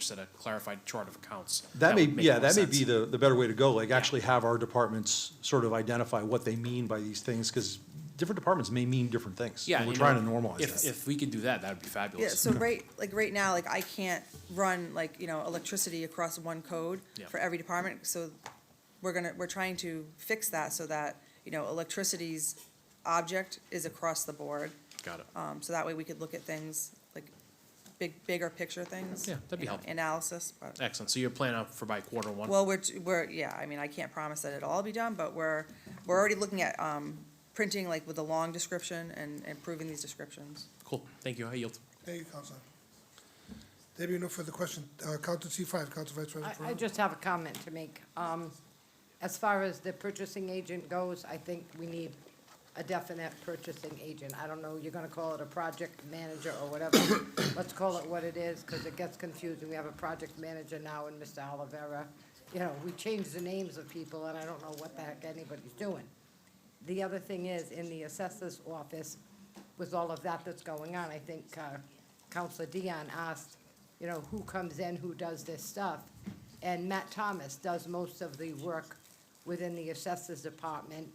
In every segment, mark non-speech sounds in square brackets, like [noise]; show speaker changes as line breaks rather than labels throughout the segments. instead of clarified chart of accounts.
That may,
would make
yeah,
more
that may
sense.
be the, the better way to go, like actually have our departments sort of identify what they mean by these things, because different departments may mean different things.
Yeah.
and We're
you
trying to
know,
normalize
If,
that.
if we could do that, that'd be
Yeah,
fabulous.
so right, like, right now, like, I can't run, like, you know, electricity across one code
Yeah.
for every department, so we're gonna, we're trying to fix that so that, you know, electricity's object is across the board,
Got it.
um, so that way we could look at things, like, big, bigger picture things.
Yeah, that'd be
you know,
helpful.
Analysis, but.
Excellent. So you're planning out for by quarter one?
Well, we're, t- we're, yeah, I mean, I can't promise that it'll all be done, but we're, we're already looking at, um, printing like with a long description and improving these descriptions.
Cool. Thank you. I yield.
Thank you, Counselor. There being no further question, uh, Counselor C five, Counselor Vice President
I, I
Ferraro.
just have a comment to make. Um, as far as the purchasing agent goes, I think we need a definite purchasing agent. I don't know, you're gonna call it a project manager or whatever. [coughs] Let's call it what it is, because it gets confusing. We have a project manager now and Mr. Olivera. You know, we change the names of people, and I don't know what the heck anybody's doing. The other thing is, in the assessor's office, with all of that that's going on, I think uh, Counselor Dion asked, you know, who comes in, who does this stuff? And Matt Thomas does most of the work within the assessor's department,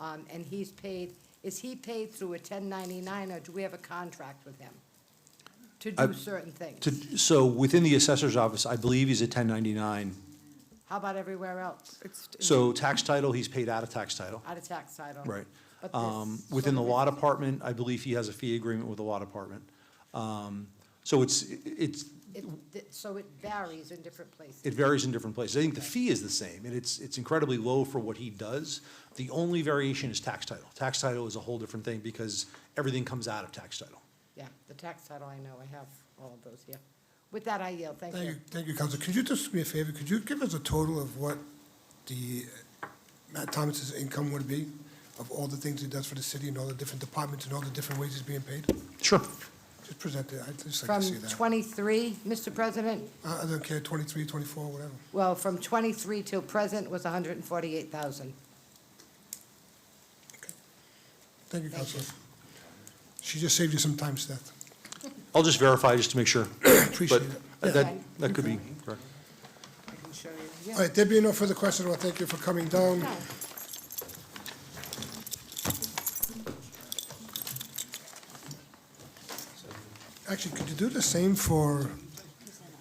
um, and he's paid, is he paid through a 1099, or do we have a contract with him to
I-
do certain things?
To- So within the assessor's office, I believe he's at ten ninety-nine.
How about everywhere else,
So tax title, he's paid out of tax title,
out of tax title?
right?
But this
Um,
sort
within the
of
law
is-
department, I believe he has a fee agreement with the law department. Um, so it's, it's,
it- th- So it varies in different places.
it varies in different places. I think the fee is the same, and it's, it's incredibly low for what he does. The only variation is tax title. Tax title is a whole different thing because everything comes out of tax title.
Yeah, the tax title, I know, I have all of those here. With that, I yield, thank
Thank
you.
you, thank you, Counselor. Could you just do me a favor? Could you give us a total of what the, uh, Matt Thomas's income would be? Of all the things he does for the city and all the different departments and all the different ways he's being paid?
Sure.
Just present it, I'd just like
From
to see that.
twenty-three, Mr. President,
I I don't care, 23, 24, whatever.
well, from twenty-three till present was hundred and forty-eight thousand.
Thank you,
Thank you.
Counselor. She just saved you some time, Seth.
I'll just verify just to make sure.
[coughs] Appreciate it.
But that, that could be correct.
I can show you.
All
Yeah.
right, there being no further questions, I want to thank you for coming down.
No.
Actually, could you do the same for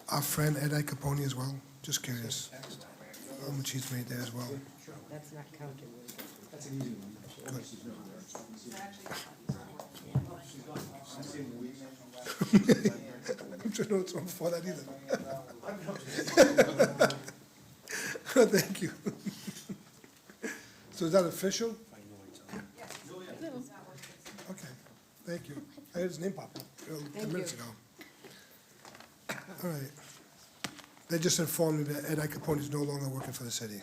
our friend Ed Capone as well? Just curious. How much he's made there as well.
That's not counting.
I'm sure no it's not for that either. [laughs] Thank you. So is that official? Okay, thank you. I heard his name pop up uh, ten
Thank
minutes
you.
ago. All right. They just informed me that Ed Capone is no longer working for the city,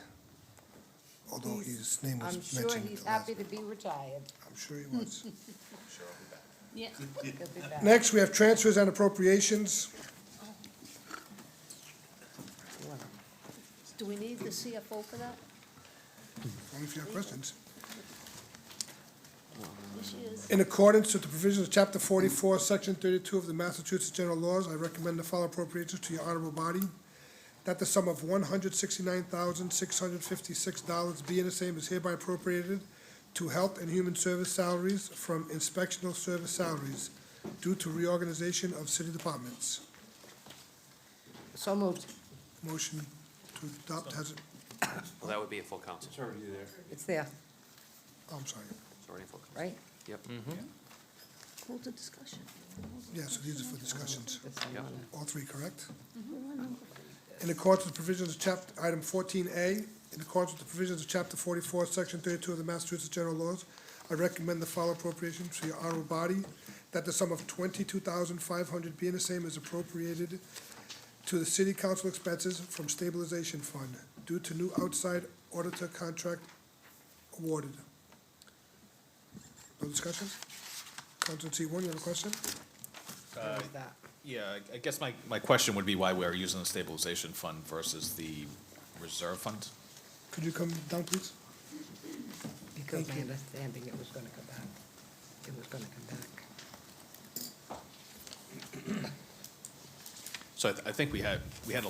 although his name was
I'm
mentioned.
sure he's
the last-
happy to be retired.
I'm sure he was.
He'll be back.
Next, we have transfers and appropriations.
Do we need the CFO for that?
Only if you have questions.
Yes, she is.
In accordance with the provisions of Chapter 44, Section 32 of the Massachusetts General Laws, I recommend the following appropriations to your honorable body. That the sum of $169,656 be in the same is hereby appropriated to health and human service salaries from inspectional service salaries due to reorganization of city departments.
So moved.
Motion to adopt has,
Well, that would be a full council. It's already there.
It's there,
I'm sorry.
It's already a full council.
right?
Yep.
Hold the discussion.
Yeah, so these are for discussions.
This one on it.
All three correct? In accordance with provisions of chapter, item fourteen A, in accordance with the provisions of chapter forty-four, section thirty-two of the Massachusetts General Laws, I recommend the following appropriation to your honorable body, that the sum of twenty-two thousand five hundred being the same is appropriated to the city council expenses from stabilization fund due to new outside auditor contract awarded. No discussion? Counselor C one, you have a question?
What was that?
Yeah, I- I guess my, my question would be why we're using the stabilization fund versus the reserve fund?
Could you come down, please?
Because my
Thank you.
understanding, it was gonna come back. It was gonna come back.
So I, th- I think we had, we had a